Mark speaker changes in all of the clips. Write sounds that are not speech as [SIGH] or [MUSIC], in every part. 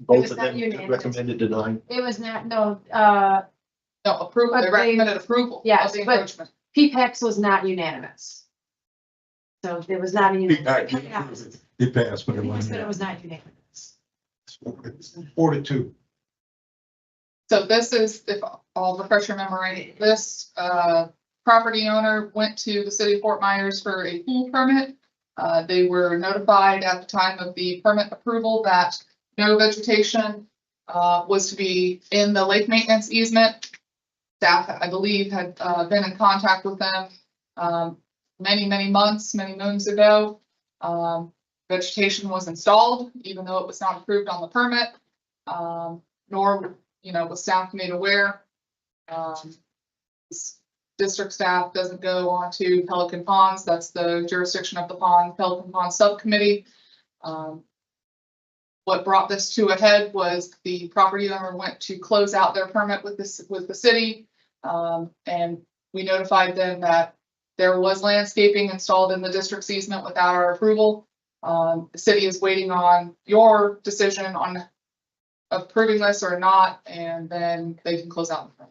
Speaker 1: Both of
Speaker 2: not
Speaker 1: them
Speaker 2: unanimous.
Speaker 1: recommended denying.
Speaker 2: It was not, no, uh,
Speaker 3: No, approval,
Speaker 2: But they-
Speaker 3: they recommended approval. of
Speaker 2: Yes,
Speaker 3: the
Speaker 2: but-
Speaker 3: encroachment.
Speaker 2: PPEX E was not unanimous. So it was not a
Speaker 1: E
Speaker 2: unanimous.
Speaker 4: It passed. It passed, but it
Speaker 2: Yes, But it
Speaker 4: wasn't.
Speaker 2: was not unanimous.
Speaker 4: Four to two.
Speaker 3: So this is, if I'll refresh your memory, this, uh, property owner went to the city of Fort Myers for a pool permit. Uh, they were notified at the time of the permit approval that no vegetation, uh, was to be in the lake maintenance easement. Staff, I believe, had, uh, been in contact with them, um, many, many months, many moons ago. Um, vegetation was installed, even though it was not approved on the permit. Um, nor you know, with staff made aware. Um, s- District staff doesn't go on to Pelican Ponds, that's the jurisdiction of the pond, Pelican Pond Subcommittee. Um, What brought this to a head was the property owner went to close out their permit with this, with the city. Um, and we notified them that there was landscaping installed in the district's easement without our approval. Um, the city is waiting on your decision on approving this or not, and then they can close out. I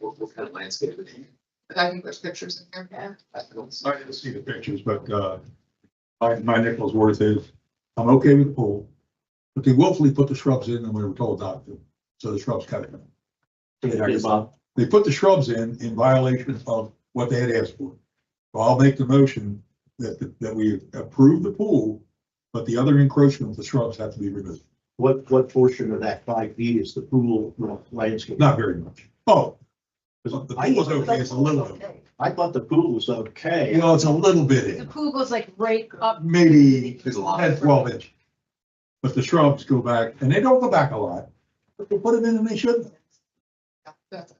Speaker 3: think there's pictures in here.
Speaker 4: I didn't see the pictures, but, uh, my, my nickel's worth is, I'm okay with the pool. But they willfully put the shrubs in and we were told not to, so the shrubs cut it. They put the shrubs in, in violation of what they had asked for. So I'll make the motion that, that we approve the pool, but the other encroachment, the shrubs have to be removed.
Speaker 1: What, what portion of that five feet is the pool you know, landscape?
Speaker 4: Not very much. Oh,
Speaker 1: Because
Speaker 4: the
Speaker 1: I-
Speaker 4: pool is okay, it's a little,
Speaker 1: I thought the pool was
Speaker 4: you
Speaker 1: okay.
Speaker 4: know, it's a little bit
Speaker 2: The
Speaker 4: in,
Speaker 2: pool goes like right up.
Speaker 4: maybe
Speaker 3: There's a lot.
Speaker 4: 10, 12 inch. But the shrubs go back, and they don't go back a lot, but they put them in and they shouldn't.
Speaker 3: That's-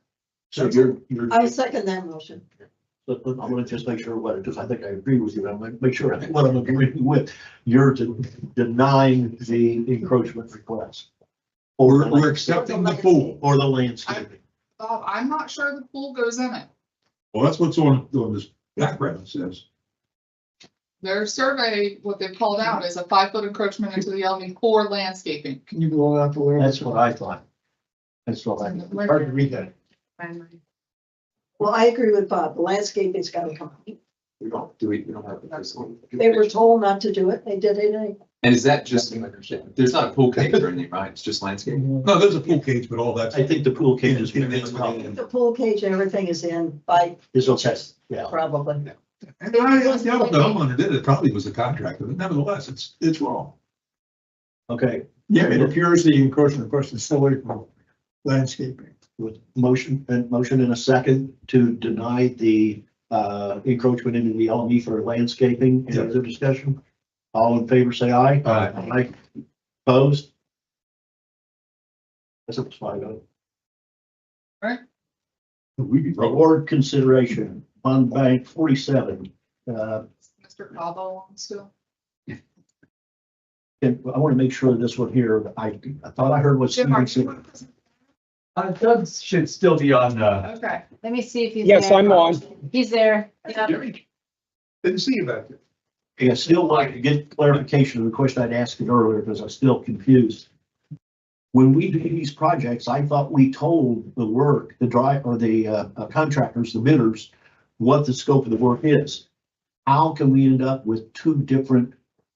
Speaker 1: So you're, you're,
Speaker 5: I second that motion.
Speaker 1: but- but I'm gonna just make sure what, because I think I agree with you, and I'm gonna make sure [LAUGHS] what I'm agreeing with. You're de- denying the encroachment request. Or, the
Speaker 4: We're, we're
Speaker 1: land-
Speaker 4: accepting the pool.
Speaker 1: or the landscaping.
Speaker 3: Bob, Uh, I'm not sure the pool goes in it.
Speaker 4: Well, that's what's on, on this background says.
Speaker 3: Their survey, what they've called out is a five-foot encroachment into the Almy core landscaping.
Speaker 6: Can you go out to where?
Speaker 1: That's what I thought. That's what I, hard to read that.
Speaker 5: Well, I agree with Bob. The landscaping's gotta come. out.
Speaker 7: We don't do it, we don't have the first one.
Speaker 5: They were told not to do it. They did it. anyway.
Speaker 7: And is that just, there's not a pool cave or anything, right? It's just landscape?
Speaker 4: No, there's a pool cage, but all that's,
Speaker 1: I think the pool cage is.
Speaker 4: Yeah, it's within-
Speaker 5: The pool cage, and everything is in by
Speaker 1: Is okay, yeah.
Speaker 5: probably.
Speaker 4: and I, I doubt the homeowner did it, probably was the contractor, but nevertheless, it's, it's wrong.
Speaker 1: Okay,
Speaker 6: Yeah, it appears the encroachment, of course, is still away from landscaping.
Speaker 1: with motion and motion in a second to deny the uh encroachment into the LME for landscaping. Any other discussion? All in favor, say aye.
Speaker 4: Uh,
Speaker 1: Aye. Opposed? That's a five oh.
Speaker 4: we be wrong.
Speaker 1: Reward consideration, fund bank forty-seven. Uh,
Speaker 3: Mr. Cabo wants to.
Speaker 1: and I want to make sure this one here, I I thought I heard what
Speaker 3: Jim, are
Speaker 1: Steven
Speaker 3: you-
Speaker 1: said.
Speaker 8: Uh, Doug should still be on, uh,
Speaker 3: Okay,
Speaker 2: Let me see if he's.
Speaker 9: Yes,
Speaker 2: there.
Speaker 9: I'm on.
Speaker 2: He's there. Yep.
Speaker 4: Didn't see about that.
Speaker 1: And I still like to get clarification of the question I'd asked it earlier because I'm still confused. When we do these projects, I thought we told the work, the drive, or the uh, contractors, the bidders, what the scope of the work is. How can we end up with two different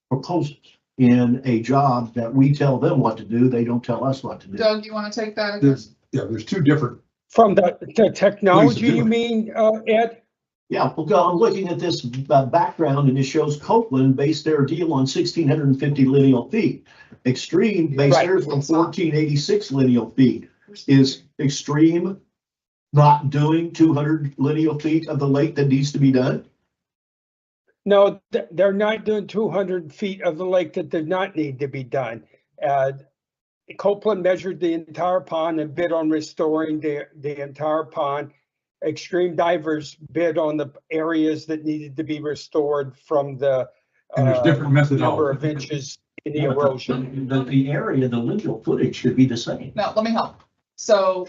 Speaker 1: proposals in a job that we tell them what to do, they don't tell us what to do?
Speaker 3: Doug, you want to take that?
Speaker 4: There's, yeah, there's two different,
Speaker 9: From the, the technology,
Speaker 4: do it.
Speaker 9: you mean, uh, Ed?
Speaker 1: Yeah, well, go- I'm looking at this uh, background and it shows Copeland based their deal on sixteen hundred and fifty lineal feet. Extreme based
Speaker 9: Right.
Speaker 1: theirs on fourteen eighty-six lineal feet. Is extreme not doing two hundred lineal feet of the lake that needs to be done?
Speaker 9: No, th- they're not doing two hundred feet of the lake that did not need to be done. Uh, Copeland measured the entire pond and bid on restoring the, the entire pond. Extreme divers bid on the areas that needed to be restored from the
Speaker 4: and there's
Speaker 9: uh,
Speaker 4: different
Speaker 9: number of
Speaker 4: methodologies.
Speaker 9: inches in the erosion.
Speaker 1: The, the area, the lineal footage should be the same.
Speaker 3: No, let me help. So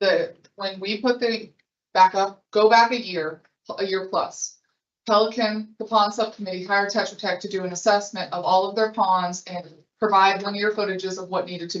Speaker 3: the, when we put the, back up, go back a year, a year plus. Pelican, the pond subcommittee hired Tetra Tech to do an assessment of all of their ponds and provide linear footages of what needed to be.